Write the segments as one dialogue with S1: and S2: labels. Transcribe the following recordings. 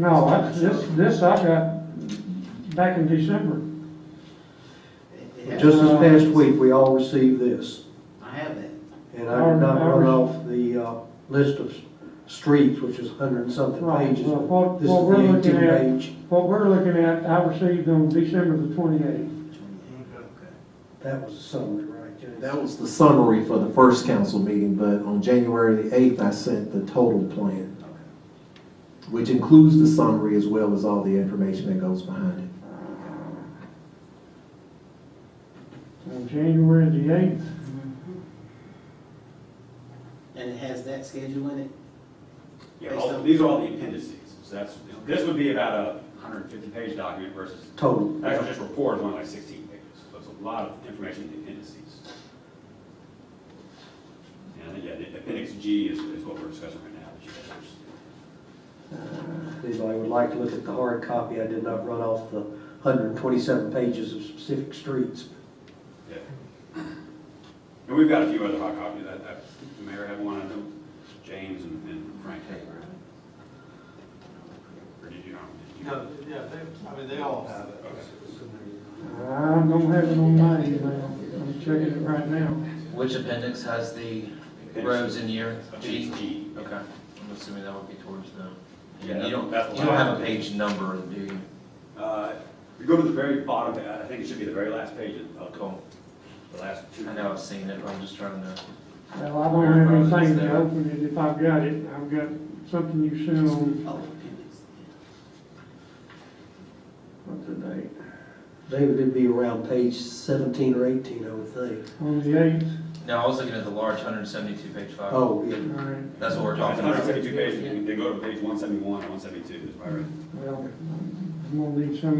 S1: No, that's, this, this I got back in December.
S2: Just
S1: Um,
S2: this past week, we all received this,
S3: I have that.
S2: and I
S1: Um,
S2: did not run off the uh, list of s- streets, which is a hundred and something
S1: Right,
S2: pages.
S1: well, what,
S2: This
S1: what we're
S2: is the
S1: looking
S2: eighteen
S1: at,
S2: page.
S1: what we're looking at, I received on December the twenty-eighth.
S2: That was a summary, right, Jason?
S4: That was the summary for the first council meeting, but on January the eighth, I sent the total plan, which includes the summary as well as all the information that goes behind it.
S1: On January the eighth,
S3: And it has that schedule in it?
S5: Yeah, all- these are all the appendices, so that's, this would be about a hundred and fifty page document versus,
S2: Total.
S5: actually, just report is only like sixteen pages, so it's a lot of information in the appendices. And I think, yeah, the appendix G is, is what we're discussing right now, which is-
S2: Anybody would like to look at the hard copy, I did not run off the hundred and twenty-seven pages of specific streets.
S5: yeah. And we've got a few other hot copies, I, I, the mayor had one, I know James and and Frank had, right? Or did you, not?
S6: No, yeah, they, I mean, they all have it.
S1: I don't have it on my email, I'm checking it right now.
S7: Which appendix has the rows in year? G?
S5: Appendix G,
S7: Okay, I'm assuming that would be towards them. You
S5: Yeah,
S7: don't,
S5: that's the
S7: you don't have
S5: one.
S7: a page number, do you?
S5: Uh, If you go to the very bottom, I think it should be the very last page of- of
S7: Cool,
S5: the last two.
S7: I know I've seen it, I'm just trying to,
S1: Well, I don't have anything to open it, if I've got it, I've got something you sent on,
S3: Oh, appendix.
S1: what's the date?
S2: David, it'd be around page seventeen or eighteen, I would think.
S1: On the eighth,
S7: no, I was looking at the large hundred and seventy-two page file.
S2: Oh, yeah.
S1: all right,
S7: That's what we're
S5: It's
S7: talking about.
S5: 172 pages, You can- they go to page 171, 172, is my right.
S1: well, I'm gonna need some,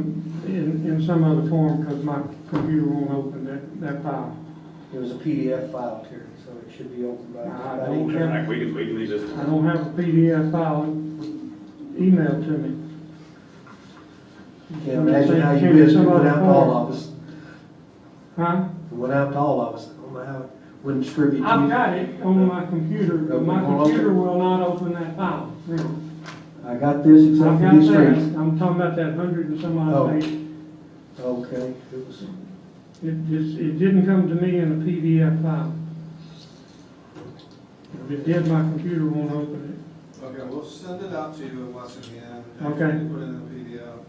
S1: in, in some other form, because my computer won't open that, that file.
S2: It was a PDF file, Terry, so it should be open by.
S1: I don't have-
S5: Like, We can, we can leave this
S1: I
S5: one.
S1: don't have a PDF file emailed to me.
S2: Can't imagine how you missed it without all of us.
S1: Huh?
S2: Went out to all of us, I don't know how, it wouldn't distribute.
S1: I've
S2: to
S1: got it on my computer, but my computer will not open that file.
S2: you. I got this
S1: I've
S2: except for
S1: got
S2: these streets.
S1: that, I'm talking about that hundred and some
S2: Oh.
S1: odd page.
S2: Okay, it was,
S1: It just, it didn't come to me in a PDF file. If it did, my computer won't open
S6: Okay, we'll send it out to you in Lexington. and
S1: Okay.
S6: you Put it in the PDF.
S1: it,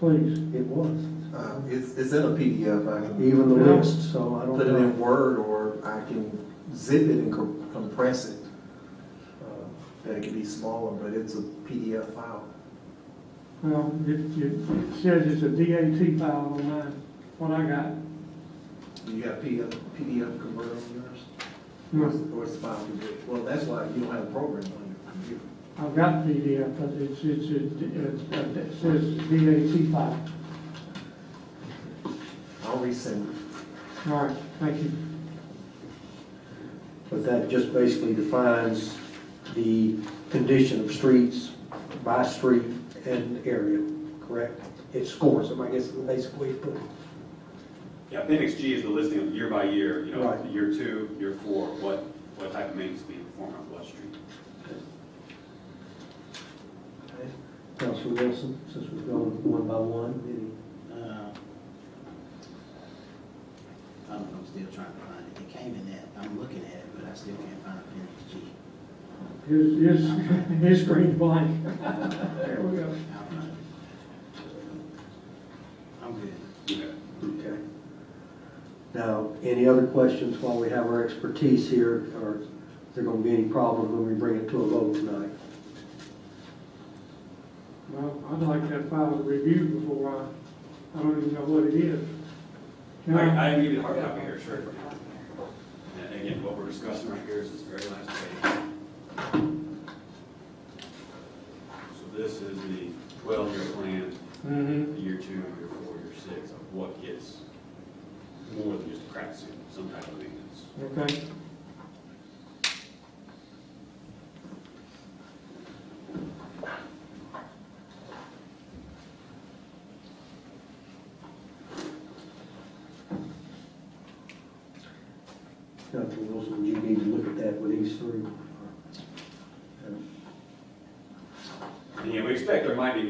S1: please.
S2: it was,
S4: Uh, It's, it's in a PDF, I can
S2: even the
S1: No.
S2: list, so I
S4: put it
S2: don't
S4: in
S2: know.
S4: Word, or I can zip it and com- compress it. uh, That it can be smaller, but it's a PDF file.
S1: Well, it, it it says it's a DAT file on mine, what I got.
S4: You got PDF, PDF converter on yours? Or
S1: No,
S4: is- Or it's file converter? Well, that's why you don't have a program on your computer.
S1: I've got PDF, but it's, it's, it's- it's- it says DAT file.
S4: I'll resend it.
S1: All right, thank you.
S2: But that just basically defines the condition of streets by street and area, correct? It scores them, I guess, is the basic way to put it.
S5: Yeah, appendix G is the listing of year by year, you know,
S2: Right.
S5: year two, year four, what, what type of maintenance being performed on what street.
S2: Okay. uh, Counselor Wilson, since we've gone one by one, any
S3: Uh, I don't know, I'm still trying to find it. It came in that, I'm looking at it, but I still can't find appendix G.
S1: His, his, his screen's blank. There we go.
S3: I'll find it. I'm good.
S5: Okay.
S2: Okay. Now, any other questions while we have our expertise here, or is there going to be any problem when we bring it to a vote tonight?
S1: Well, I'd like that file reviewed before I, I don't even know what it is. Can I,
S5: I, I can give you the hard copy here, sure. And again, what we're discussing right here is this very last page. So this is the twelve-year plan.
S1: Mhm.
S5: year two, year four, year six, of what gets more than just a crack ceiling, some type of maintenance.
S1: okay,
S2: Dr. Wilson, you need to look at that with these three.
S5: And yeah, we expect there might be